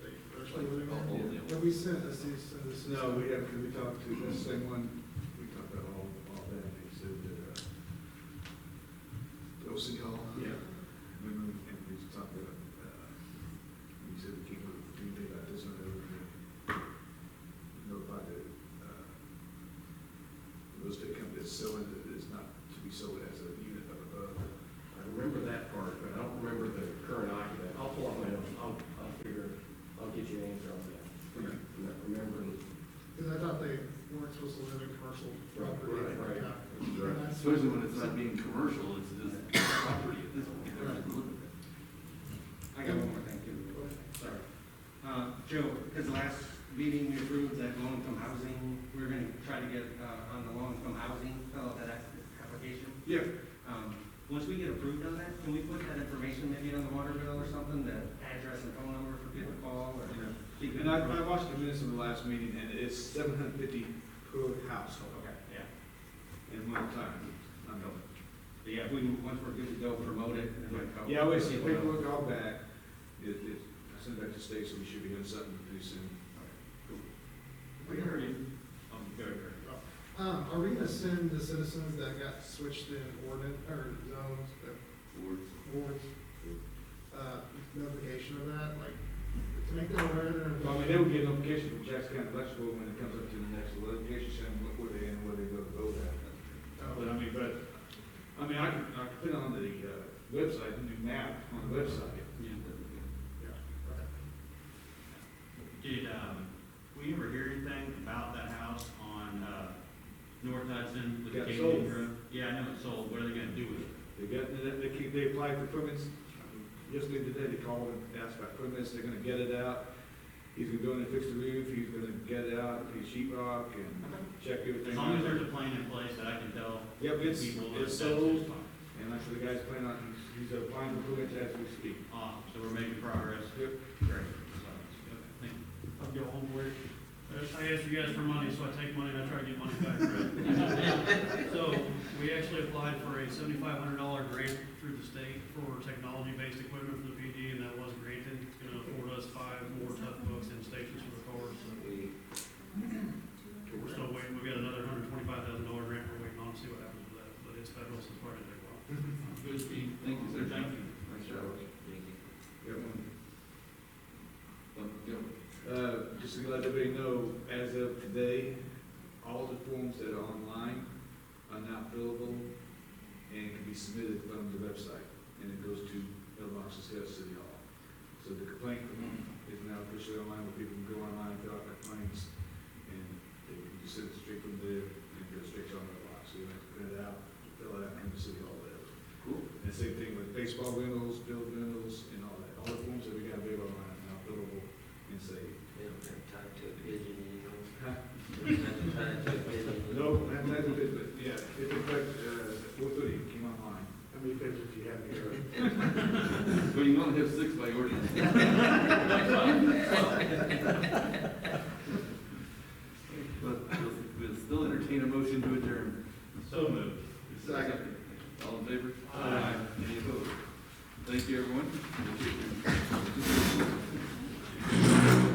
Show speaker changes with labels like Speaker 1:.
Speaker 1: Like, Have we sent us these? uh, this is-
Speaker 2: No, we have, because we talked to the same one, we talked about all, all that, they said that,
Speaker 1: Those are y'all.
Speaker 2: uh, yeah, remember, and we talked about, uh, we said we can't do anything about this one, other than notify the, uh, real estate company that's selling it, it's not to be sold as a unit up above.
Speaker 3: I remember that part, but I don't remember the current occupant. I'll pull up my notes, I'll, I'll figure, I'll get you an answer on that.
Speaker 2: Okay.
Speaker 3: I'm not remembering.
Speaker 1: Because I thought they weren't supposed to live in commercial property.
Speaker 3: Right, right.
Speaker 1: Yeah.
Speaker 2: Right.
Speaker 1: And that's-
Speaker 4: Especially when it's not being commercial, it's just property at this point. They're not living there.
Speaker 5: I got one more thing too, sorry. Uh, Joe, his last meeting we approved that low-income housing, we we're gonna try to get, uh, on the low-income housing, fill out that app- application.
Speaker 2: Yeah,
Speaker 5: Um, once we get approved on that, can we put that information maybe on the water bill or something, the address and phone number for people to call or?
Speaker 2: Yeah.
Speaker 5: Be good.
Speaker 2: and I, I watched the minutes of the last meeting, and it's seven hundred fifty per household
Speaker 5: Okay, yeah.
Speaker 2: in one time, I know.
Speaker 5: But yeah, if we, once we're good to go, promote it and then. go-
Speaker 2: Yeah, I always see paperwork all back, it, it, I sent back to Stacy, we should be doing something pretty soon.
Speaker 5: We heard you.
Speaker 2: Um, very, very.
Speaker 1: Um, are we gonna send the citizens that got switched in ordinance, or zones, uh,
Speaker 4: Boards.
Speaker 1: wards, uh, notification of that, like, to make them aware that.
Speaker 2: Well, I mean, they would get notification from Jackson County Electrical when it comes up to the next litigation, saying what where they and where they go to vote at. Oh, But I mean, but, I mean, I can, I can put on the, uh, website, the new map on the website.
Speaker 6: Did, um, we ever hear anything about that house on, uh, North Hudson with the
Speaker 2: Got
Speaker 6: Canyon
Speaker 2: sold.
Speaker 6: Grove? Yeah, I know it's sold, what are they gonna do with it?
Speaker 2: They got, they, they keep, they applied for permits, yesterday today, they called and asked about permits, they're gonna get it out. He's gonna go in and fix the roof, he's gonna get it out, he's sheet rock and check everything.
Speaker 6: As long as there's a plan in place that I can tell
Speaker 2: Yep, it's,
Speaker 6: people that
Speaker 2: it's
Speaker 6: that's
Speaker 2: sold,
Speaker 6: just fine.
Speaker 2: and actually the guy's planning on, he's, he's applying for permits as we speak.
Speaker 6: Awesome, so we're making progress.
Speaker 2: Yep.
Speaker 6: Great. So, yep, Thank you. I'll go home work. I asked you guys for money, so I take money and I try to get money back, right? So, we actually applied for a seventy-five hundred dollar grant through the state for technology-based equipment for the PD, and that was granted. It's gonna afford us five more tough books and stations for the cars, so we're still waiting. We've got another hundred twenty-five thousand dollar grant we're waiting on, to see what happens with that, but it's federal, so it's probably gonna take a while.
Speaker 4: Good speed. Thank you, sir.
Speaker 6: Thank you.
Speaker 4: Nice job. Thank you.
Speaker 2: Yep.
Speaker 4: Um, yeah.
Speaker 2: Uh, just to let everybody know, as of today, all the forms that are online are now fillable and can be submitted from the website, and it goes to El Monte City Hall. So the complaint form is now officially online, where people can go online, fill out their complaints, and they can just send it straight from there and go straight to El Monte. So you don't have to print it out, fill it out, and the city hall there.
Speaker 4: Cool.
Speaker 2: And same thing with baseball rentals, bill rentals, and all that. All the forms that we got available online are now fillable and saved.
Speaker 7: They don't have time to a pigeon, you know?
Speaker 2: Huh?
Speaker 7: They don't have time to a pigeon. you know?
Speaker 2: No, that, that's a bit, but yeah, it looked like, uh, four thirty came online.
Speaker 1: How many pages do you have here?
Speaker 4: But you only have six by ordinance. But we'll, we'll still entertain a motion to adjourn.
Speaker 6: So moved.
Speaker 4: Second. All in favor?
Speaker 6: Aye.
Speaker 4: Any opposed? Thank you, everyone.